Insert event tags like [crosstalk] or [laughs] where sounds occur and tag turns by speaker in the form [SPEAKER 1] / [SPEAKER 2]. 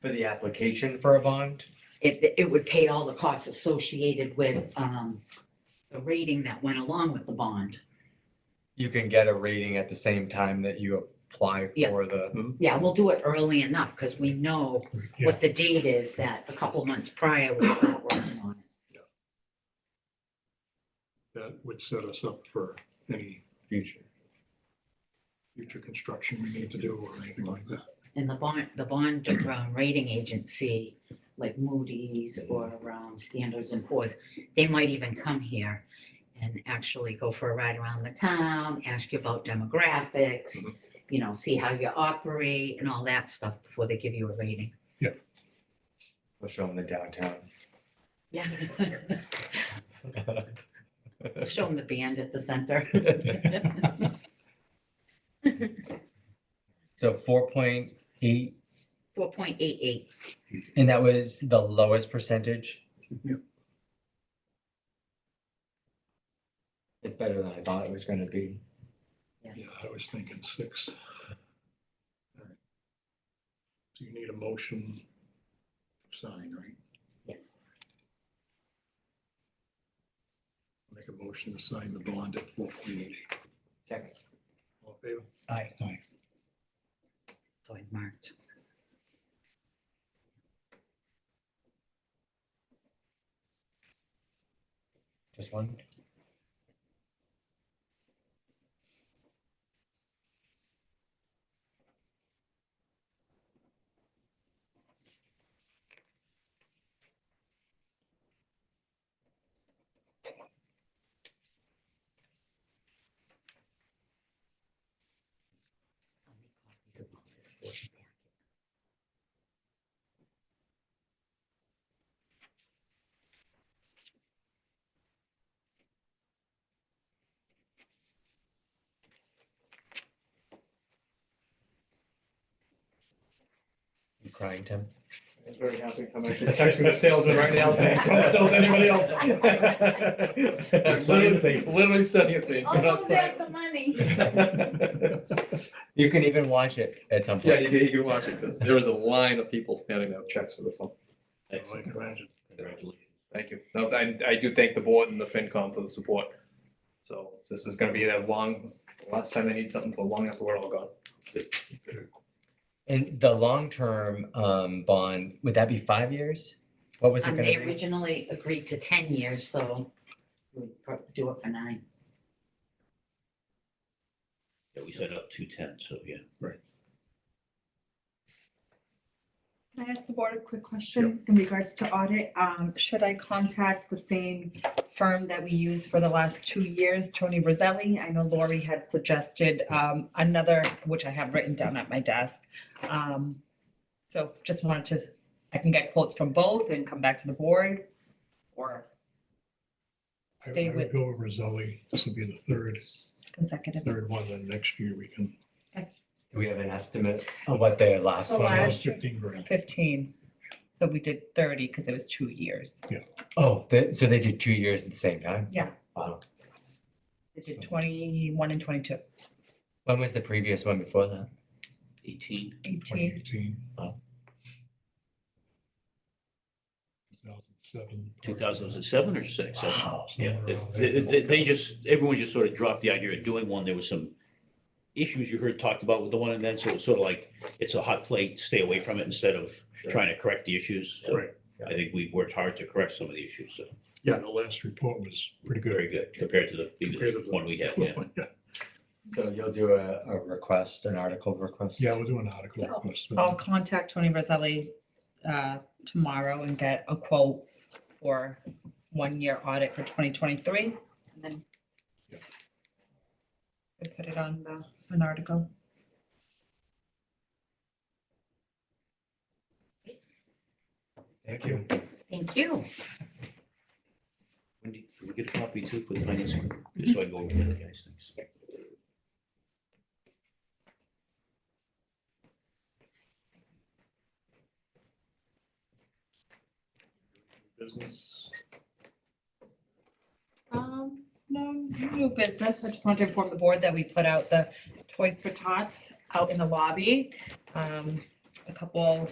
[SPEAKER 1] for the application for a bond?
[SPEAKER 2] It, it would pay all the costs associated with, um, the rating that went along with the bond.
[SPEAKER 1] You can get a rating at the same time that you apply
[SPEAKER 2] Yeah.
[SPEAKER 1] for the,
[SPEAKER 2] Yeah, we'll do it early enough because we know what the date is that a couple months prior we start working on. it.
[SPEAKER 3] That would set us up for any
[SPEAKER 1] future.
[SPEAKER 3] future construction we need to do or anything like that.
[SPEAKER 2] And the bond, the bond um, rating agency, like Moody's or um, Standards and Poor's, they might even come here and actually go for a ride around the town, ask you about demographics,
[SPEAKER 3] Mhm.
[SPEAKER 2] you know, see how you operate and all that stuff before they give you a rating.
[SPEAKER 1] We'll show them the [laughs] downtown.
[SPEAKER 2] Yeah. Show them the band at the
[SPEAKER 1] [laughs]
[SPEAKER 2] center.
[SPEAKER 1] So four point eight,
[SPEAKER 2] Four point eight eight.
[SPEAKER 1] and that was the lowest percentage?
[SPEAKER 3] Yep.
[SPEAKER 1] It's better than I thought it was gonna be.
[SPEAKER 3] Yeah, I was thinking six. All right. So you need a motion to sign, right?
[SPEAKER 2] Yes.
[SPEAKER 3] Make a motion to sign the bond at four point eight eight.
[SPEAKER 1] Second.
[SPEAKER 3] All in favor?
[SPEAKER 1] Aye.
[SPEAKER 3] Aye.
[SPEAKER 2] So I marked.
[SPEAKER 1] Just one?
[SPEAKER 2] How many copies of all this board packet?
[SPEAKER 1] You crying, Tim?
[SPEAKER 4] I'm very happy. I'm actually texting the salesman right now saying, don't sell to anybody else. Literally, literally said it, saying, do not sell.
[SPEAKER 2] the money.
[SPEAKER 1] You can even watch it at some
[SPEAKER 4] [laughs] Yeah,
[SPEAKER 1] point.
[SPEAKER 4] you can, you can watch it, 'cause there was a line of people standing out checks for this one.
[SPEAKER 3] I can imagine.
[SPEAKER 4] Thank you. No, I, I do thank the board and the FinCom for the support. So this is gonna be that long, last time they need something for long after we're all gone.
[SPEAKER 1] And the long-term um bond, would that be five years? What was it
[SPEAKER 2] Um,
[SPEAKER 1] gonna
[SPEAKER 2] they
[SPEAKER 1] be?
[SPEAKER 2] originally agreed to ten years, so we pro- do it for nine.
[SPEAKER 5] Yeah, we set up two ten, so yeah.
[SPEAKER 6] Can I ask the board a quick question in regards to audit? Um, should I contact the same firm that we used for the last two years, Tony Roselli? I know Lori had suggested, um, another, which I have written down at my desk. Um, so just wanted to, I can get quotes from both and come back to the board or
[SPEAKER 3] I
[SPEAKER 6] Stay
[SPEAKER 3] I would
[SPEAKER 6] with-
[SPEAKER 3] go with Roselli. This will be the third,
[SPEAKER 6] consecutive.
[SPEAKER 3] third one. Then next year we can,
[SPEAKER 1] Do we have an estimate of what their last
[SPEAKER 2] Oh,
[SPEAKER 6] So
[SPEAKER 1] one was?
[SPEAKER 6] last-
[SPEAKER 3] fifteen grand.
[SPEAKER 6] Fifteen. So we did thirty because it was two years.
[SPEAKER 1] Oh, they- so they did two years at the same time?
[SPEAKER 6] Yeah.
[SPEAKER 1] Wow.
[SPEAKER 6] We did twenty-one and twenty-two,
[SPEAKER 1] When was the previous one before that?
[SPEAKER 5] Eighteen,
[SPEAKER 3] Twenty
[SPEAKER 6] eighteen.
[SPEAKER 3] eighteen.
[SPEAKER 1] Wow.
[SPEAKER 3] Two thousand seven.
[SPEAKER 5] two thousand and seven or six? I-
[SPEAKER 1] Wow.
[SPEAKER 5] Yeah, they, they- they just, everyone just sort of dropped the idea of doing one. There was some issues you heard talked about with the one and then, so it's sort of like, it's a hot plate, stay away from it instead of trying to correct the issues. So
[SPEAKER 3] Right.
[SPEAKER 5] I think we worked hard to correct some of the issues, so
[SPEAKER 3] Yeah, the last report was pretty good.
[SPEAKER 5] very good compared to the
[SPEAKER 3] Compared to
[SPEAKER 5] previous
[SPEAKER 3] the-
[SPEAKER 5] one we had, yeah.
[SPEAKER 1] So you'll do a, a request, an article request?
[SPEAKER 3] [laughs] Yeah, we'll do an article
[SPEAKER 6] So,
[SPEAKER 3] request.
[SPEAKER 6] I'll contact Tony Roselli uh, tomorrow and get a quote for one-year audit for 2023. And then
[SPEAKER 3] Yep.
[SPEAKER 6] we put it on the, an article.
[SPEAKER 3] Thank you.
[SPEAKER 2] Thank you.
[SPEAKER 5] Wendy, can we get a copy too for the finance, group? just so I go over the other guys' things?
[SPEAKER 3] Business.
[SPEAKER 6] Um, no, new business. I just wanted to inform the board that we put out the Toys for Tots out in the lobby. Um, a couple